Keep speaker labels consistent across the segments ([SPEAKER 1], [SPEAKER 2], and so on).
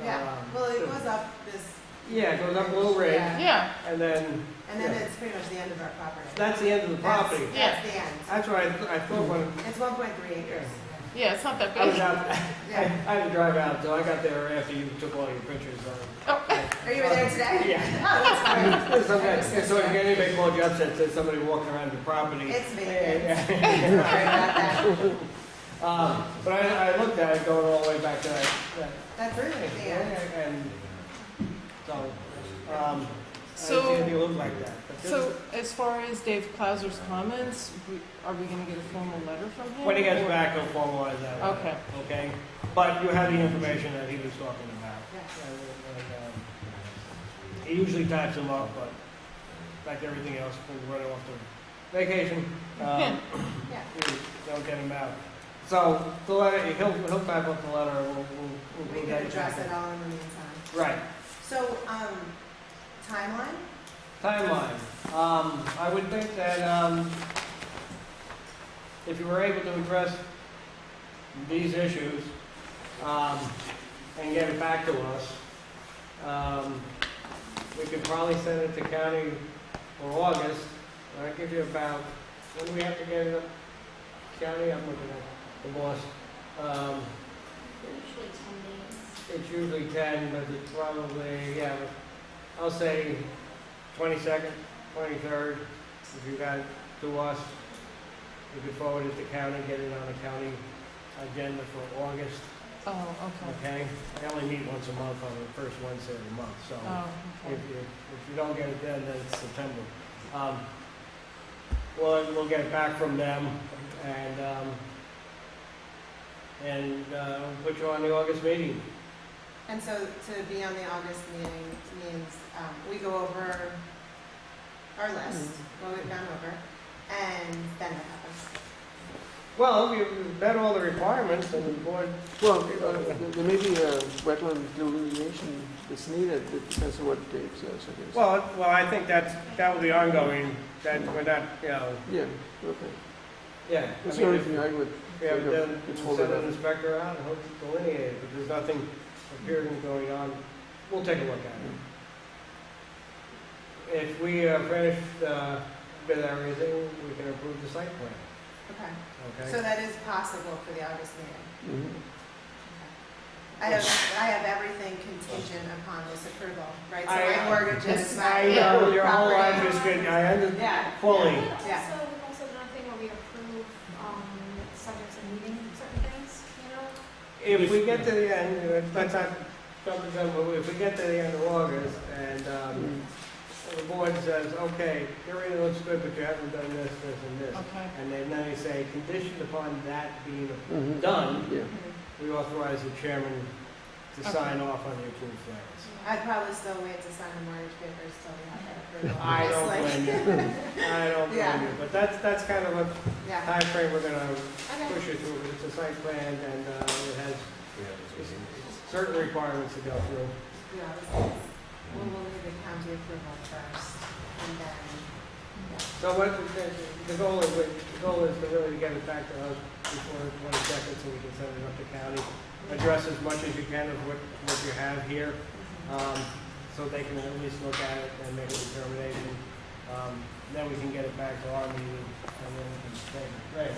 [SPEAKER 1] Um,
[SPEAKER 2] Well, it goes up this,
[SPEAKER 1] Yeah, it goes up a little ridge,
[SPEAKER 2] Yeah.
[SPEAKER 3] Yeah,
[SPEAKER 1] and then
[SPEAKER 2] and then
[SPEAKER 1] Yeah.
[SPEAKER 2] it's pretty much the end of our property.
[SPEAKER 1] that's the end of the
[SPEAKER 2] That's-
[SPEAKER 1] property.
[SPEAKER 2] That's the end.
[SPEAKER 1] That's what I, I thought when
[SPEAKER 2] It's one point three acres.
[SPEAKER 3] yeah, it's not that
[SPEAKER 1] I was
[SPEAKER 3] big.
[SPEAKER 1] out, I I
[SPEAKER 2] Yeah.
[SPEAKER 1] had to drive out, so I got there after you took all your pictures. um,
[SPEAKER 2] Are you there today?
[SPEAKER 1] Yeah.
[SPEAKER 2] Oh, Yeah.
[SPEAKER 1] There's some guy- So if anybody called you up, said, said somebody walking around your property.
[SPEAKER 2] It's me.
[SPEAKER 1] Yeah,
[SPEAKER 2] Sorry about that.
[SPEAKER 1] yeah. Um, But I, I looked at it going all the way back to that, that
[SPEAKER 2] That's really
[SPEAKER 1] thing,
[SPEAKER 2] the end.
[SPEAKER 1] and so, um, I
[SPEAKER 3] So-
[SPEAKER 1] didn't see it look like that. But this-
[SPEAKER 3] So as far as Dave Clauser's comments, we- are we gonna get a formal letter from him?
[SPEAKER 1] When he gets
[SPEAKER 3] or-
[SPEAKER 1] back, he'll formalize that. one,
[SPEAKER 3] Okay.
[SPEAKER 1] Okay? But you have the information that he was talking about.
[SPEAKER 2] Yeah.
[SPEAKER 1] And, and, um, He usually types them up, but like everything else, we run off to vacation. um,
[SPEAKER 2] Yeah.
[SPEAKER 1] we Don't get him out. So the letter, he'll, he'll type up the letter, we'll, we'll, we'll.
[SPEAKER 2] We can address it all in the meantime.
[SPEAKER 1] Right.
[SPEAKER 2] So, um, timeline?
[SPEAKER 1] Timeline, um, I would think that, um, if you were able to address these issues, um, and get it back to us, um, we could probably send it to county for August, that'd give you about, when do we have to get it up? County, I'm looking at the boss, um,
[SPEAKER 4] Usually ten days.
[SPEAKER 1] it's usually ten, but it's probably, yeah, I'll say twenty-second, twenty-third, if you got it to us. We could forward it to county, get it on the county agenda for August,
[SPEAKER 3] Oh, okay.
[SPEAKER 1] okay? I only meet once a month on the first Wednesday of the month, so
[SPEAKER 3] Oh,
[SPEAKER 1] if you,
[SPEAKER 3] okay.
[SPEAKER 1] if you don't get it then, then it's September. Um, Well, we'll get it back from them and, um, and, uh, we'll put you on the August meeting.
[SPEAKER 2] And so to be on the August meeting means, um, we go over our list,
[SPEAKER 1] Mm-hmm.
[SPEAKER 2] what we've gone over, and then what happens?
[SPEAKER 1] Well, you- you've met all the requirements and the board,
[SPEAKER 5] Well, uh, there may be a wetland delineation that's needed, it depends on what Dave says, I guess.
[SPEAKER 1] well, well, I think that's, that will be ongoing, that we're not, you know,
[SPEAKER 5] Yeah, okay.
[SPEAKER 1] yeah. I
[SPEAKER 5] That's the
[SPEAKER 1] mean,
[SPEAKER 5] only
[SPEAKER 1] if
[SPEAKER 5] thing I would,
[SPEAKER 1] We have
[SPEAKER 5] think of-
[SPEAKER 1] done,
[SPEAKER 5] it's
[SPEAKER 1] we'll
[SPEAKER 5] holding
[SPEAKER 1] send an
[SPEAKER 5] up.
[SPEAKER 1] inspector out and hope to delineate it, but there's nothing appearing going on. We'll take a look at it. If we uh, finish, uh, with everything, we can approve the site plan,
[SPEAKER 2] Okay, so
[SPEAKER 1] okay?
[SPEAKER 2] that is possible for the August meeting.
[SPEAKER 5] Mhm.
[SPEAKER 2] I have, I have everything contingent upon this approval, right? So
[SPEAKER 1] I-
[SPEAKER 2] my mortgage is my.
[SPEAKER 1] I know, your whole
[SPEAKER 2] property.
[SPEAKER 1] life is good, I understand
[SPEAKER 2] Yeah,
[SPEAKER 1] fully.
[SPEAKER 4] And
[SPEAKER 2] Yeah.
[SPEAKER 4] also, we've also done a thing where we approve, um, subjects of meeting certain things, you know?
[SPEAKER 1] If we get to the end, uh, let's not jump the gun, but if we get to the end of August and um,
[SPEAKER 5] Mhm.
[SPEAKER 1] the board says, okay, your area looks good, but you haven't done this, this, and this,
[SPEAKER 3] Okay,
[SPEAKER 1] and then they say, conditioned upon that being
[SPEAKER 5] Mhm.
[SPEAKER 1] done,
[SPEAKER 5] Yeah,
[SPEAKER 1] we authorize the chairman to sign off on the approved plans.
[SPEAKER 2] I'd probably still wait to sign the mortgage papers till we have that approval.
[SPEAKER 1] I don't
[SPEAKER 2] It's like-
[SPEAKER 1] blame you. I don't blame
[SPEAKER 2] Yeah.
[SPEAKER 1] you, but that's, that's kind of a
[SPEAKER 2] Yeah,
[SPEAKER 1] timeframe we're gonna
[SPEAKER 2] okay,
[SPEAKER 1] push it through. It's a site plan and uh, it has certain requirements to go through.
[SPEAKER 2] yeah, this is, we'll, we'll need the county approval first, and then,
[SPEAKER 1] So what, the, the goal is, the goal is to really get it back to us before the twenty-second, so we can send it up to county. Address as much as you can of what, what you have here, um, so they can at least look at it and make a determination. Um, then we can get it back to our meeting, and then we can say, great,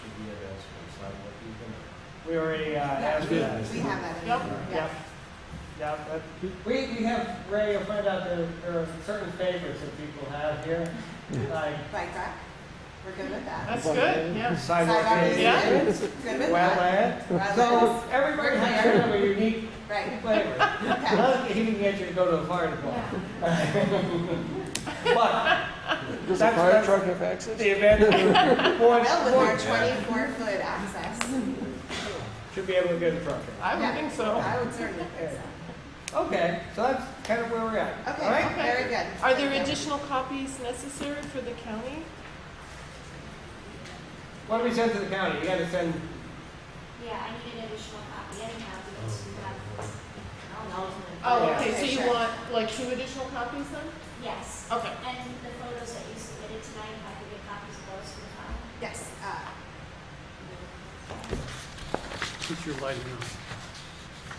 [SPEAKER 6] Should we have asked for a sidewalk even?
[SPEAKER 1] we already, uh,
[SPEAKER 2] yeah,
[SPEAKER 1] asked for that.
[SPEAKER 2] we, we have that in
[SPEAKER 3] Yep.
[SPEAKER 2] there,
[SPEAKER 1] Yep.
[SPEAKER 2] yeah.
[SPEAKER 1] Yeah, that, we, we have, Ray, you'll find out there, there are certain favorites that people have here, like.
[SPEAKER 2] Bike rack, we're good with that.
[SPEAKER 3] that's good, yeah.
[SPEAKER 1] Sidewalk
[SPEAKER 2] Sidewalk
[SPEAKER 1] is-
[SPEAKER 3] Yeah.
[SPEAKER 2] is Good with that.
[SPEAKER 1] Wetland.
[SPEAKER 2] Wetlands,
[SPEAKER 1] So everybody has sort of a unique
[SPEAKER 2] right,
[SPEAKER 1] flavor.
[SPEAKER 2] okay,
[SPEAKER 1] Not that you can get you to go to the fire department. But
[SPEAKER 5] does the
[SPEAKER 1] That's-
[SPEAKER 5] fire
[SPEAKER 1] that's-
[SPEAKER 5] truck have access?
[SPEAKER 1] the event, board,
[SPEAKER 2] well, with
[SPEAKER 1] board
[SPEAKER 2] our twenty-four foot access,
[SPEAKER 1] should be able to get a truck
[SPEAKER 3] I would
[SPEAKER 2] Yeah.
[SPEAKER 3] think so.
[SPEAKER 2] I would certainly think so.
[SPEAKER 1] in. Okay, so that's kind of where we're at. All
[SPEAKER 2] Okay,
[SPEAKER 1] right?
[SPEAKER 3] Okay.
[SPEAKER 2] very good.
[SPEAKER 3] Are there
[SPEAKER 2] Thank you.
[SPEAKER 3] additional copies necessary for the county?
[SPEAKER 1] What do we send to the county? You gotta send,
[SPEAKER 4] Yeah, I need an additional copy, anyhow, because you have, I don't know.
[SPEAKER 3] Oh,
[SPEAKER 1] Yeah.
[SPEAKER 3] okay, so you
[SPEAKER 2] Sure.
[SPEAKER 3] want like two additional copies then?
[SPEAKER 4] Yes,
[SPEAKER 3] Okay.
[SPEAKER 4] and the photos that you submitted tonight, if I could get copies of those for the file.
[SPEAKER 2] Yes, uh,
[SPEAKER 7] Put your lighting on.